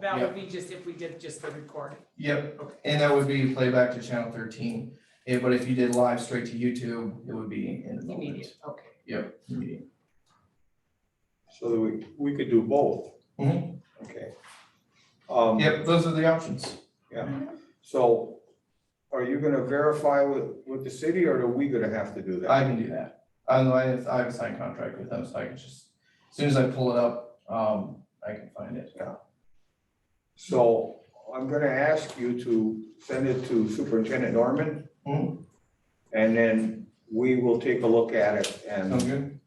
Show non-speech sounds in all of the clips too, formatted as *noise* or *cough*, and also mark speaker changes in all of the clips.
Speaker 1: that would be just if we did just the recording.
Speaker 2: Yep, and that would be playback to channel thirteen, Eh, but if you did live straight to YouTube, it would be in the moment.
Speaker 1: Immediate, okay.
Speaker 2: Yep, immediate.
Speaker 3: So that we, we could do both.
Speaker 2: Mhm.
Speaker 3: Okay. Um,
Speaker 2: Yep, those are the options.
Speaker 3: so are you gonna verify with, with the city or are we gonna have to do that?
Speaker 2: I can do that. I know I have, I have a signed contract with them, so I can just, as soon as I pull it up, um, I can find it.
Speaker 3: So I'm gonna ask you to send it to Superintendent Norman.
Speaker 2: Mhm.
Speaker 3: And then we will take a look at it and
Speaker 2: Sound good?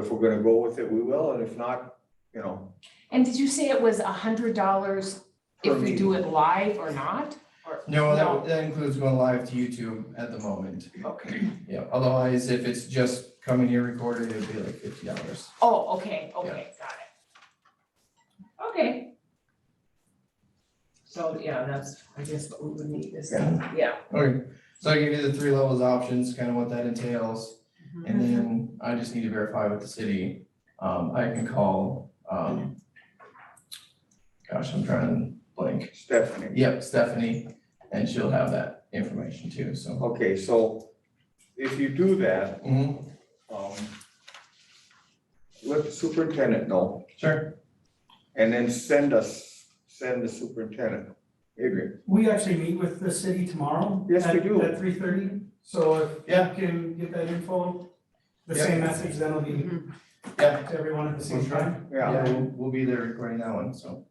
Speaker 3: if we're gonna go with it, we will, and if not, you know,
Speaker 1: And did you say it was a hundred dollars if
Speaker 3: Per
Speaker 1: we do it live or not? Or,
Speaker 2: No,
Speaker 1: No.
Speaker 2: that, that includes going live to YouTube at the moment.
Speaker 1: okay,
Speaker 2: Yeah, otherwise, if it's just coming here recorded, it'd be like fifty dollars.
Speaker 1: oh, okay, okay, got it. Okay. So, yeah, that's, I guess what we would need is,
Speaker 2: Yeah.
Speaker 1: yeah,
Speaker 2: Okay, so I give you the three levels options, kind of what that entails. And
Speaker 1: Mm-hmm.
Speaker 2: then I just need to verify with the city. Um, I can call, um, gosh, I'm trying to blank.
Speaker 3: Stephanie.
Speaker 2: Yep, Stephanie, and she'll have that information too, so.
Speaker 3: Okay, so if you do that,
Speaker 2: Mhm,
Speaker 3: um, let the superintendent know,
Speaker 2: sure.
Speaker 3: and then send us, send the superintendent, Adrian.
Speaker 4: We actually meet with the city tomorrow.
Speaker 3: Yes, we
Speaker 4: at-
Speaker 3: do.
Speaker 4: At three thirty, so if
Speaker 2: Yeah.
Speaker 4: you can get that info, the
Speaker 2: Yeah.
Speaker 4: same message, then it'll be
Speaker 2: Yeah.
Speaker 4: to everyone at the same
Speaker 2: We'll try.
Speaker 4: time.
Speaker 3: Yeah,
Speaker 2: Yeah, we'll, we'll be there recording that one, so.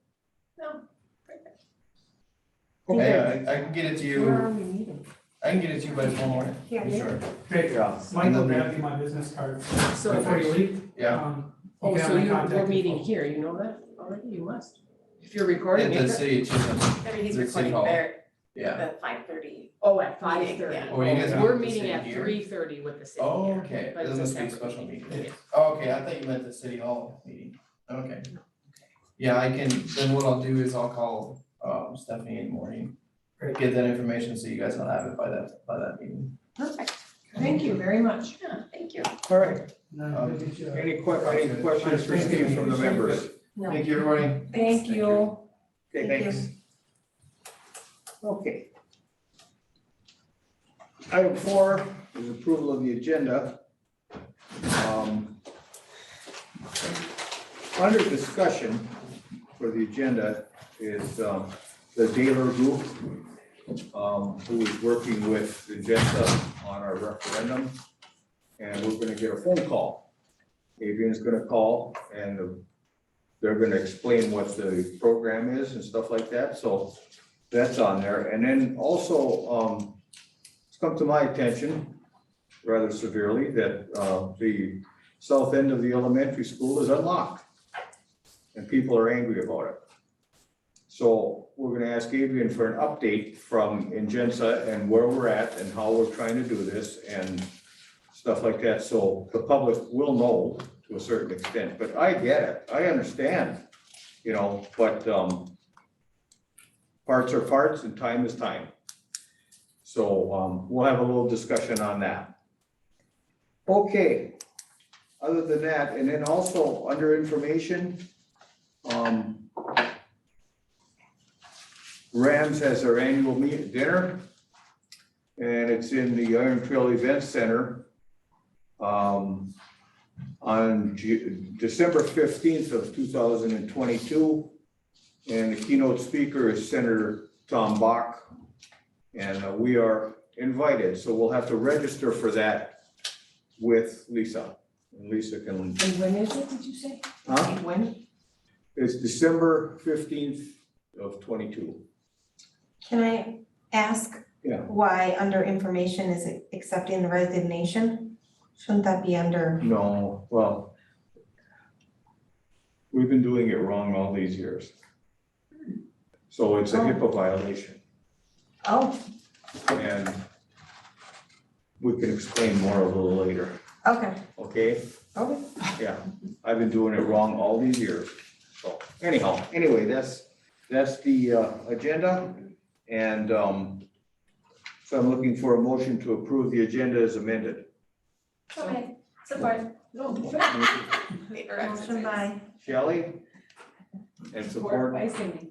Speaker 3: okay,
Speaker 2: Yeah, I, I can get it to
Speaker 1: Where are
Speaker 2: you,
Speaker 1: we meeting?
Speaker 2: I can get it to you by tomorrow morning.
Speaker 1: Yeah.
Speaker 2: Sure,
Speaker 4: Great,
Speaker 3: yeah,
Speaker 4: Michael grabbed you my business card
Speaker 1: So,
Speaker 4: before you leave.
Speaker 2: yeah.
Speaker 4: Um, you
Speaker 1: oh,
Speaker 4: can have
Speaker 1: so
Speaker 4: my
Speaker 1: you're,
Speaker 4: contact
Speaker 1: we're
Speaker 4: info.
Speaker 1: meeting here, you know that already, you must. If you're
Speaker 2: At
Speaker 1: recording
Speaker 2: the
Speaker 1: it,
Speaker 2: city, of Chisholm.
Speaker 5: Everything's
Speaker 2: Is it City
Speaker 5: recording
Speaker 2: Hall?
Speaker 5: there
Speaker 2: yeah.
Speaker 5: at five thirty.
Speaker 1: oh, at five thirty.
Speaker 5: Yeah.
Speaker 2: Oh, you guys
Speaker 1: We're
Speaker 2: meet the
Speaker 1: meeting
Speaker 2: same
Speaker 1: at
Speaker 2: here?
Speaker 1: three thirty with the city
Speaker 2: Oh,
Speaker 1: here,
Speaker 2: okay,
Speaker 1: but
Speaker 2: this
Speaker 1: it's
Speaker 2: must be a
Speaker 1: separate
Speaker 2: special meeting.
Speaker 1: Yeah.
Speaker 2: Oh, Okay, I thought you meant the city hall meeting, okay. Yeah, I can, then what I'll do is I'll call um Stephanie in the morning.
Speaker 4: Great.
Speaker 2: Get that information so you guys will have it by that, by that meeting.
Speaker 5: Perfect,
Speaker 1: Thank you very much.
Speaker 5: yeah, thank you.
Speaker 3: all right.
Speaker 4: And then we'll get you a-
Speaker 3: Any que, any questions received from the members?
Speaker 5: No.
Speaker 2: Thank you, everybody.
Speaker 1: Thank you.
Speaker 3: Okay,
Speaker 5: Thank you.
Speaker 3: thanks. Okay. Item four is approval of the agenda. Um, Under discussion for the agenda is um, the Daler Group, um, who is working with the agenda on our referendum. And we're gonna get a phone call. Adrian's gonna call and the they're gonna explain what the program is and stuff like that, so that's on there. And then also, um, it's come to my attention rather severely that, uh, the south end of the elementary school is unlocked. And people are angry about it. So we're gonna ask Adrian for an update from Ingenza and where we're at and how we're trying to do this and stuff like that, so the public will know to a certain extent, but I get it, I understand, you know, but, um, parts are parts and time is time. So, um, we'll have a little discussion on that. Okay, other than that, and then also under information, um, Rams has their annual meet, dinner, and it's in the Iron Trail Event Center um, on Ju- December fifteenth of two thousand and twenty-two. And the keynote speaker is Senator Tom Bach. And uh, we are invited, so we'll have to register for that with Lisa. And Lisa can,
Speaker 1: And when is it, did you say?
Speaker 3: huh?
Speaker 1: When?
Speaker 3: It's December fifteenth of twenty-two.
Speaker 5: Can I ask?
Speaker 3: Yeah.
Speaker 5: Why under information is it accepting the resignation? Shouldn't that be under,
Speaker 3: No, well, we've been doing it wrong all these years. So it's a
Speaker 5: Oh.
Speaker 3: HIPAA violation.
Speaker 5: oh,
Speaker 3: And we can explain more a little later,
Speaker 5: okay,
Speaker 3: okay?
Speaker 5: okay.
Speaker 3: Yeah, I've been doing it wrong all these years. So anyhow, anyway, that's, that's the uh, agenda. And um, so I'm looking for a motion to approve the agenda as amended.
Speaker 1: Okay,
Speaker 5: support. *laughs* Motion by
Speaker 3: Shelley? And support
Speaker 1: By Cindy.